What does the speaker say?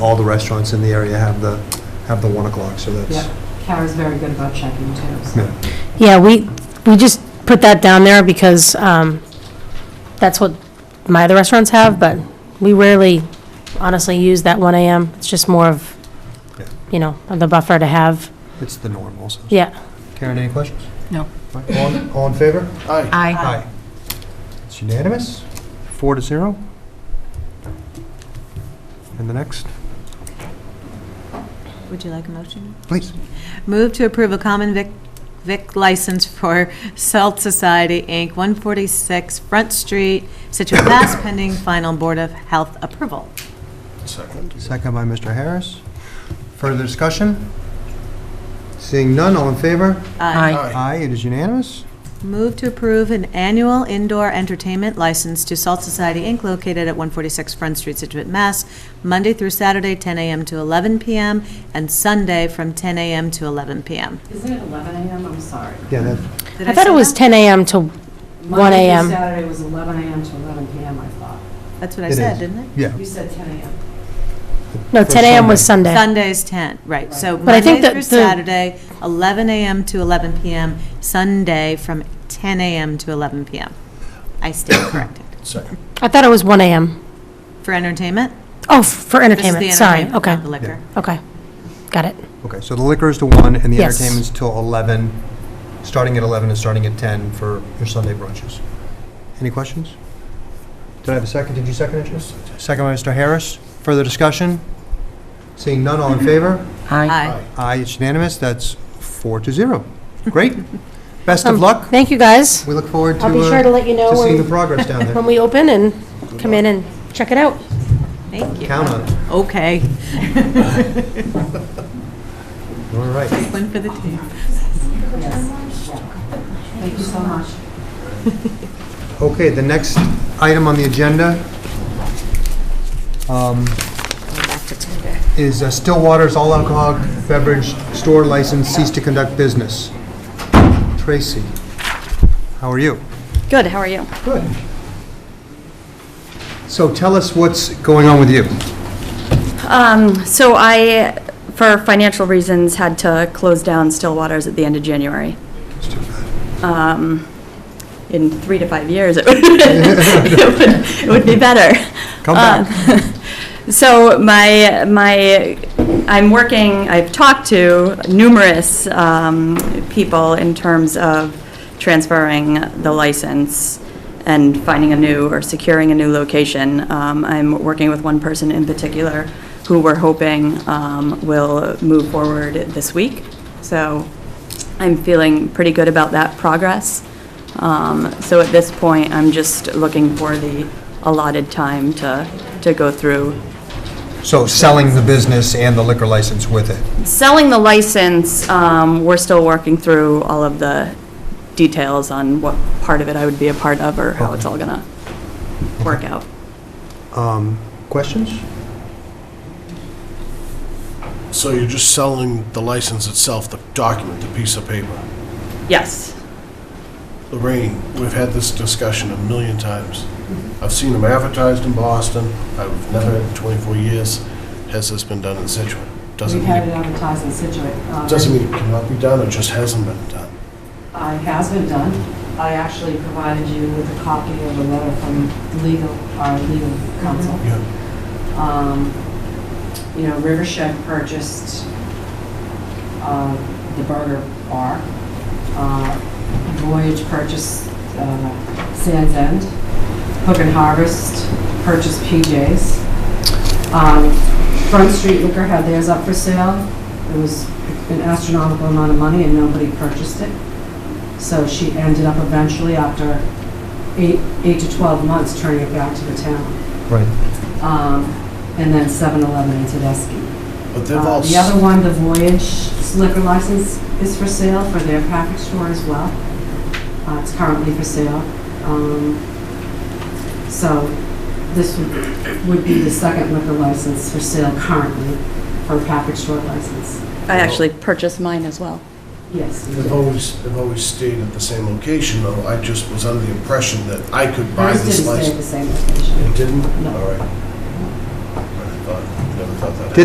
all the restaurants in the area have the, have the 1 o'clock, so that's, Yeah. Kara's very good about checking too, so. yeah. Yeah, we, we just put that down there because um, that's what my other restaurants have, but we rarely honestly use that 1 AM. It's just more of, Yeah. you know, the buffer to have. it's the norm also. Yeah. Karen, any questions? No. All all in favor? Aye. Uh, Aye. It's unanimous, four to zero. And the next, Would you like a motion? please. Move to approve a common vic, vic license for Salt Society, Inc., 146 Front Street, Situate, Mass, pending final Board of Health approval. Second by Mr. Harris. Further discussion? Seeing none, all in favor? Aye. Aye, it is unanimous. Move to approve an annual indoor entertainment license to Salt Society, Inc., located at 146 Front Street, Situate, Mass, Monday through Saturday, 10 a.m. to 11 p.m., and Sunday from 10 a.m. to 11 p.m. Isn't it 11 AM? I'm sorry. Yeah, that, Did I thought it say was that? 10 AM to, 1 Monday a.m.. through Saturday was 11 AM to 11 PM, I thought. That's what I It said, is. didn't I? yeah. You said 10 AM. no, For 10 AM was Sunday. Sunday's 10, right, so But I think Monday that through the- Saturday, 11 AM to 11 PM, Sunday from 10 AM to 11 PM. I stand corrected. I thought it was 1 AM. For entertainment? Oh, f- for This is the entertainment, sorry. entertainment, Okay, not the liquor. okay. Got it. Okay, so the liquor is to 1 and the Yes. entertainment's till 11, starting at 11 and starting at 10 for your Sunday brunches. Any questions? Did I have a second? Did you second it, Jess? Second by Mr. Harris. Further discussion? Seeing none, all in favor? Aye. Aye, it's unanimous. That's 4 to 0. Great. Best of Um, luck. Thank you, guys. We look forward to I'll be sure to uh, let you know to seeing the when, progress down there. when we open and come in and check it out. Thank you. Count on it. Okay. All right. One for the team. Thank you so much. Okay, the next item on the agenda um, is uh, Stillwater's all alcoholic beverage store license cease to conduct business. Tracy, how are you? Good, how are you? Good. So tell us what's going on with you. Um, so I, for financial reasons, had to close down Stillwaters at the end of January. Um, in three to five years, it would, it would- it would be better. Um, Come back. So my, my, I'm working, I've talked to numerous um, people in terms of transferring the license and finding a new or securing a new location. Um, I'm working with one person in particular who we're hoping um, will move forward this week. So I'm feeling pretty good about that progress. Um, So at this point, I'm just looking for the allotted time to, to go through So selling the business and the liquor license with it. Selling the license, um, we're still working through all of the details on what part of it I would be a part of or how it's all gonna work out. Um, Questions? So you're just selling the license itself, the document, the piece of paper. Yes. Lorraine, we've had this discussion a million times. Mm-hmm. I've seen them advertised in Boston. I've never, in 24 years, has this been done in Situate? Doesn't We've had it mean, advertised in Situate. Uh, doesn't mean it cannot be done, it just hasn't been done. Uh, It has been done. I actually provided you with a copy of a letter from legal, our legal counsel. Yeah, Um, You know, Rivershed purchased uh, the burger bar. Uh, Voyage purchased uh, Sands End. Hook and Harvest purchased PJ's. Um, Front Street Liquor had theirs up for sale. It was an astronomical amount of money and nobody purchased it. So she ended up eventually, after eight eight to 12 months, turning it back to the town Right. um, and then 7-Eleven in Tedeschi. But they've Uh, all, The s- other one, the Voyage liquor license is for sale for their package store as well. Uh, It's currently for sale. Um, So this would- would be the second liquor license for sale currently for a package store license. I actually purchased mine as well. Yes. you they've did. always, they've always stayed at the same location, though. I just was under the impression that I could buy Hers this didn't stay at the license. same location. It didn't? No. All right. I thought, never thought that.